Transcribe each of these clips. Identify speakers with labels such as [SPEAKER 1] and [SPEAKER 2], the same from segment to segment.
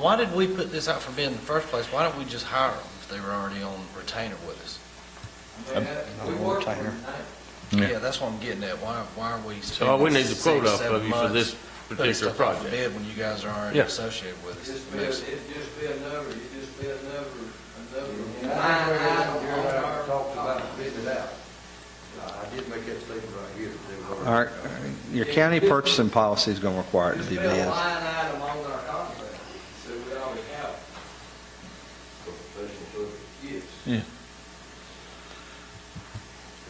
[SPEAKER 1] Why did we put this out for bid in the first place? Why don't we just hire them if they were already on retainer with us?
[SPEAKER 2] we work for
[SPEAKER 3] Yeah.
[SPEAKER 1] Yeah, that's what I'm getting at. Why, why are we
[SPEAKER 4] So all
[SPEAKER 1] spending
[SPEAKER 4] we need to
[SPEAKER 1] six,
[SPEAKER 4] quote off
[SPEAKER 1] seven
[SPEAKER 4] of you for
[SPEAKER 1] months
[SPEAKER 4] this
[SPEAKER 1] putting
[SPEAKER 4] particular
[SPEAKER 1] stuff out for
[SPEAKER 4] project.
[SPEAKER 1] bid when you guys are already
[SPEAKER 4] Yeah.
[SPEAKER 1] associated with us?
[SPEAKER 2] Just be, it'd just be another, it'd just be another, another.
[SPEAKER 5] talked about bidding it out. I did make that statement right here. that they were-
[SPEAKER 3] Our, your county purchasing policy is going to require it to
[SPEAKER 2] Just
[SPEAKER 3] be
[SPEAKER 2] be a
[SPEAKER 3] bid.
[SPEAKER 2] line item on our contract, so we always have. it.
[SPEAKER 5] Professional service.
[SPEAKER 2] Yes.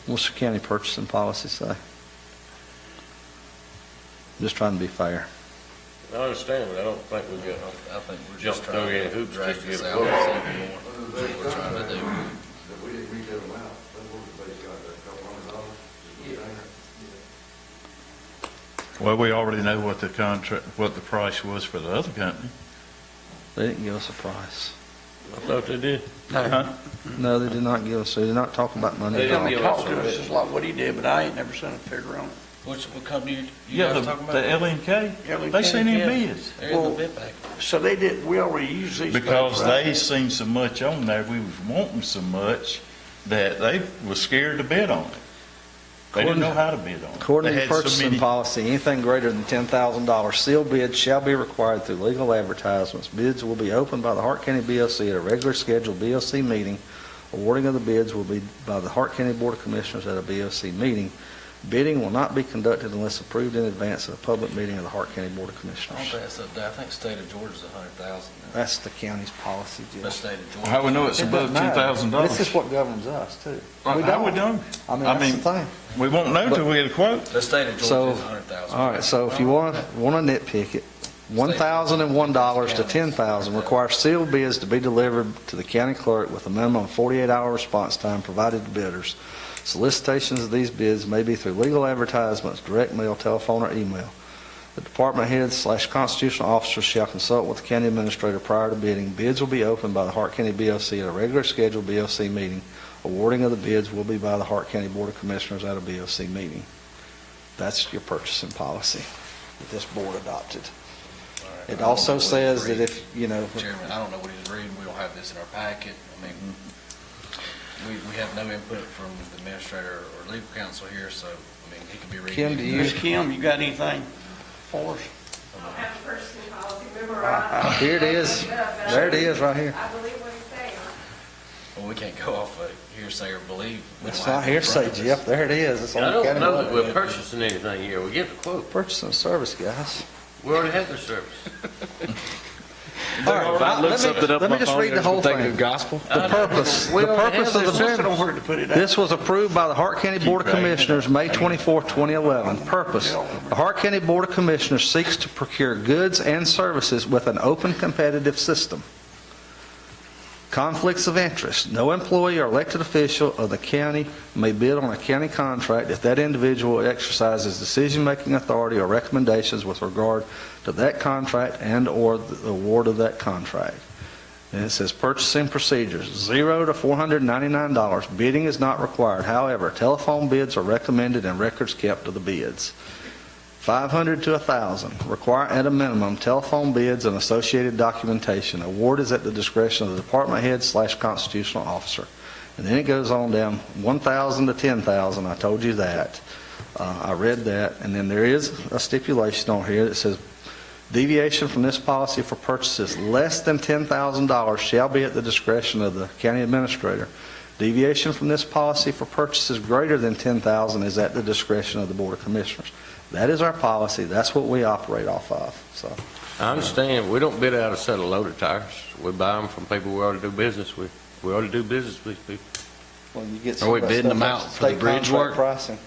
[SPEAKER 3] What's your county purchasing policy say? Just trying to be fair.
[SPEAKER 4] I understand, but I don't think we got,
[SPEAKER 1] I think we're
[SPEAKER 4] Jump
[SPEAKER 1] just trying
[SPEAKER 4] through any
[SPEAKER 1] to
[SPEAKER 4] hoops
[SPEAKER 1] drag
[SPEAKER 4] just to
[SPEAKER 1] this
[SPEAKER 4] get a
[SPEAKER 1] out
[SPEAKER 4] quote.
[SPEAKER 1] even more.
[SPEAKER 5] Under the
[SPEAKER 1] That's
[SPEAKER 5] base
[SPEAKER 1] what we're trying to do.
[SPEAKER 5] contract, That we didn't read them out, that was the base contract, a couple hundred dollars.
[SPEAKER 2] Yeah.
[SPEAKER 6] Well, we already know what the contract, what the price was for the other company.
[SPEAKER 3] They didn't give us a price.
[SPEAKER 4] I thought they did.
[SPEAKER 6] Huh?
[SPEAKER 3] No, they did not give us, they did not talk about money. at all.
[SPEAKER 7] Talked to us, it's like what he did, but I ain't never seen a figure on it.
[SPEAKER 1] Which, what company you- you
[SPEAKER 6] Yeah, the
[SPEAKER 1] guys talking
[SPEAKER 6] the
[SPEAKER 1] about?
[SPEAKER 6] LNK,
[SPEAKER 7] L&K,
[SPEAKER 6] they seen
[SPEAKER 1] yeah.
[SPEAKER 6] him bids.
[SPEAKER 1] They're in the
[SPEAKER 7] Well-
[SPEAKER 1] bid package.
[SPEAKER 7] So they did, we already used these.
[SPEAKER 6] Because
[SPEAKER 7] guys, right?
[SPEAKER 6] they seen so much on there, we was wanting so much, that they was scared to bid on it. They didn't know how to bid on it.
[SPEAKER 3] According
[SPEAKER 6] They
[SPEAKER 3] to
[SPEAKER 6] had so
[SPEAKER 3] purchasing
[SPEAKER 6] many-
[SPEAKER 3] policy, anything greater than ten thousand dollars sealed bid shall be required through legal advertisements. Bids will be opened by the Hart County BLC at a regular scheduled BLC meeting. Awarding of the bids will be by the Hart County Board of Commissioners at a BLC meeting. Bidding will not be conducted unless approved in advance at a public meeting of the Hart County Board of
[SPEAKER 1] I don't
[SPEAKER 3] Commissioners.
[SPEAKER 1] think it's up there. I think state of Georgia's a hundred thousand.
[SPEAKER 3] That's the county's policy, Jim.
[SPEAKER 1] But state of Georgia.
[SPEAKER 6] How we know it's above
[SPEAKER 3] It doesn't
[SPEAKER 6] ten
[SPEAKER 3] matter.
[SPEAKER 6] thousand dollars?
[SPEAKER 3] This is what governs us, too. We
[SPEAKER 6] How we
[SPEAKER 3] don't.
[SPEAKER 6] know?
[SPEAKER 3] I mean,
[SPEAKER 6] I
[SPEAKER 3] that's the
[SPEAKER 6] mean-
[SPEAKER 3] thing.
[SPEAKER 6] We won't know till we get a quote.
[SPEAKER 1] The state of
[SPEAKER 3] So-
[SPEAKER 1] Georgia is a hundred thousand.
[SPEAKER 3] All right, so if you want, want to nitpick it, $1,001 to $10,000 requires sealed bids to be delivered to the county clerk with a minimum of 48-hour response time provided to bidders. Solicitations of these bids may be through legal advertisements, direct mail, telephone, or email. The department head slash constitutional officer shall consult with the county administrator prior to bidding. Bids will be opened by the Hart County BOC at a regular scheduled BOC meeting. Awarding of the bids will be by the Hart County Board of Commissioners at a BOC meeting. That's your purchasing policy that this board adopted. It also says that if, you know,
[SPEAKER 1] Chairman, I don't know what he's reading, we don't have this in our packet, I mean,
[SPEAKER 3] Mm-hmm.
[SPEAKER 1] we, we have no input from the administrator or legal counsel here, so, I mean, he could be reading.
[SPEAKER 3] Kim, do you-
[SPEAKER 7] Miss Kim, you got anything for us?
[SPEAKER 8] I don't have a personal policy memorized.
[SPEAKER 3] Uh, here it is. There it is, right here.
[SPEAKER 8] I believe what he's saying.
[SPEAKER 1] Well, we can't go off of hearsay or believe. We
[SPEAKER 3] It's
[SPEAKER 1] don't
[SPEAKER 3] not
[SPEAKER 1] have it in front
[SPEAKER 3] hearsay,
[SPEAKER 1] of us.
[SPEAKER 3] Jeff. There it is. It's
[SPEAKER 4] I
[SPEAKER 3] on the
[SPEAKER 4] don't
[SPEAKER 3] county.
[SPEAKER 4] know that
[SPEAKER 3] board.
[SPEAKER 4] we're purchasing anything here. We get the quote.
[SPEAKER 3] Purchasing service, guys.
[SPEAKER 4] We already had the service.
[SPEAKER 3] All right,
[SPEAKER 9] If I
[SPEAKER 3] let
[SPEAKER 9] look
[SPEAKER 3] me-
[SPEAKER 9] something up on
[SPEAKER 3] let me
[SPEAKER 9] my
[SPEAKER 3] just
[SPEAKER 9] phone,
[SPEAKER 3] read the
[SPEAKER 9] it's
[SPEAKER 3] whole
[SPEAKER 9] gonna take
[SPEAKER 3] thing.
[SPEAKER 9] the gospel.
[SPEAKER 3] The purpose, the purpose of the
[SPEAKER 7] There's nowhere to put it out.
[SPEAKER 3] This was approved by the Hart County Board of Commissioners, May 24, 2011. Purpose, the Hart County Board of Commissioners seeks to procure goods and services with an open competitive system. Conflicts of interest, no employee or elected official of the county may bid on a county contract if that individual exercises decision-making authority or recommendations with regard to that contract and/or the award of that contract. And it says purchasing procedures, zero to four hundred ninety-nine dollars. Bidding is not required. However, telephone bids are recommended and records kept of the bids. Five hundred to a thousand, require at a minimum telephone bids and associated documentation. Award is at the discretion of the department head slash constitutional officer. And then it goes on down, one thousand to ten thousand, I told you that. Uh, I read that, and then there is a stipulation on here that says Deviation from this policy for purchases less than $10,000 shall be at the discretion of the county administrator. Deviation from this policy for purchases greater than $10,000 is at the discretion of the Board of Commissioners. That is our policy, that's what we operate off of, so.
[SPEAKER 4] I understand, we don't bid out a set of loader tires. We buy them from people we already do business with. We already do business with people.
[SPEAKER 3] Are
[SPEAKER 9] Are we bidding them out for the bridge work?
[SPEAKER 3] Pricing.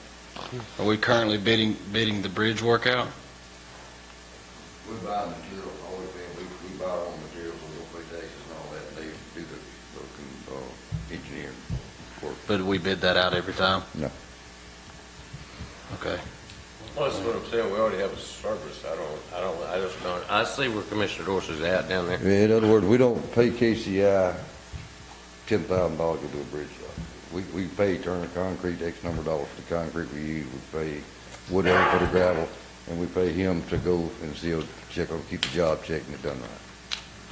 [SPEAKER 9] Are we currently bidding, bidding the bridge work out?
[SPEAKER 5] We buy material, all we pay, we, we buy our own materials, we don't pay taxes and all that, and they do the, the, uh, engineering.
[SPEAKER 9] But we bid that out every time?
[SPEAKER 5] No.
[SPEAKER 9] Okay.
[SPEAKER 4] Well, that's what I'm saying, we already have a service. I don't, I don't, I just don't, I see where Commissioner Dorsey's at down there.
[SPEAKER 5] In other words, we don't pay KCI ten thousand dollars to do a bridge job. We, we pay Turner Concrete X number of dollars for the concrete we use, we pay Woodhill for the gravel, and we pay him to go and seal, check on, keep the job checked and it done right.